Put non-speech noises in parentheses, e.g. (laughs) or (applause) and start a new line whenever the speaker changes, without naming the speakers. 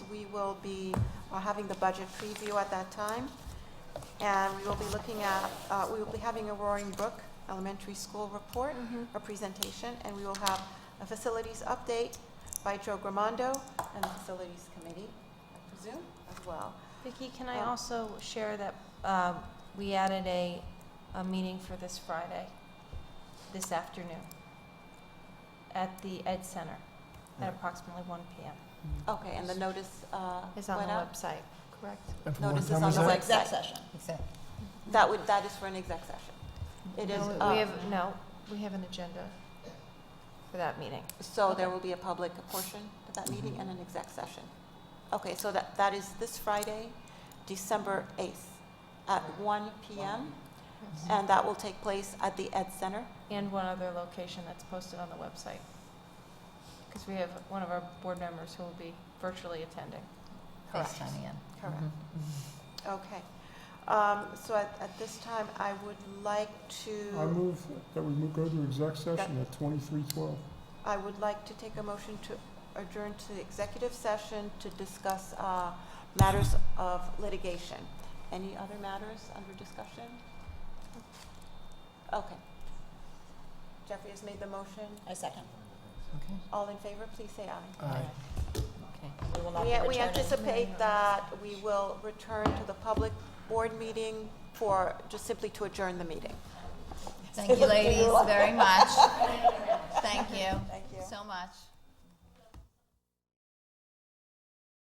we will be uh, having the budget preview at that time. And we will be looking at, uh, we will be having a Roaring Brook Elementary School report, a presentation, and we will have a facilities update by Joe Gramondo and the Facilities Committee, I presume, as well.
Vicki, can I
Oh.
also share that um, we added a, a meeting for this Friday, this afternoon, at the Ed Center at approximately 1 PM.
Okay, and the notice, uh,
It's on
went
the
out?
website, correct?
And for what
Notice is
time
on
is
the
that?
website.
session.
Exactly.
That would, that is for an exec session. It is,
No, we-
uh,
We have, no, we have an agenda for that meeting.
so there will be a public portion to that meeting and an exec session. Okay, so that, that is this Friday, December 8th, at 1 PM, and that will take place at the Ed Center.
And one other location that's posted on the website. Because we have one of our board members who will be virtually attending.
FaceTime in.
Correct.
Mm-hmm.
Okay. Um, So at, at this time, I would like
I
to,
move that we move- go to exec session at twenty-three twelve.
I would like to take a motion to adjourn to the executive session to discuss uh, matters of litigation. Any other matters under discussion? Okay. Jeffrey has made the motion.
I second.
Okay.
All in favor, please say aye.
Aye.
Okay. We will not be
We- We
returning.
anticipate that we will return to the public board meeting for, just simply to adjourn the meeting. (laughs)
Thank you, ladies, very much. Thank you
Thank you.
so much.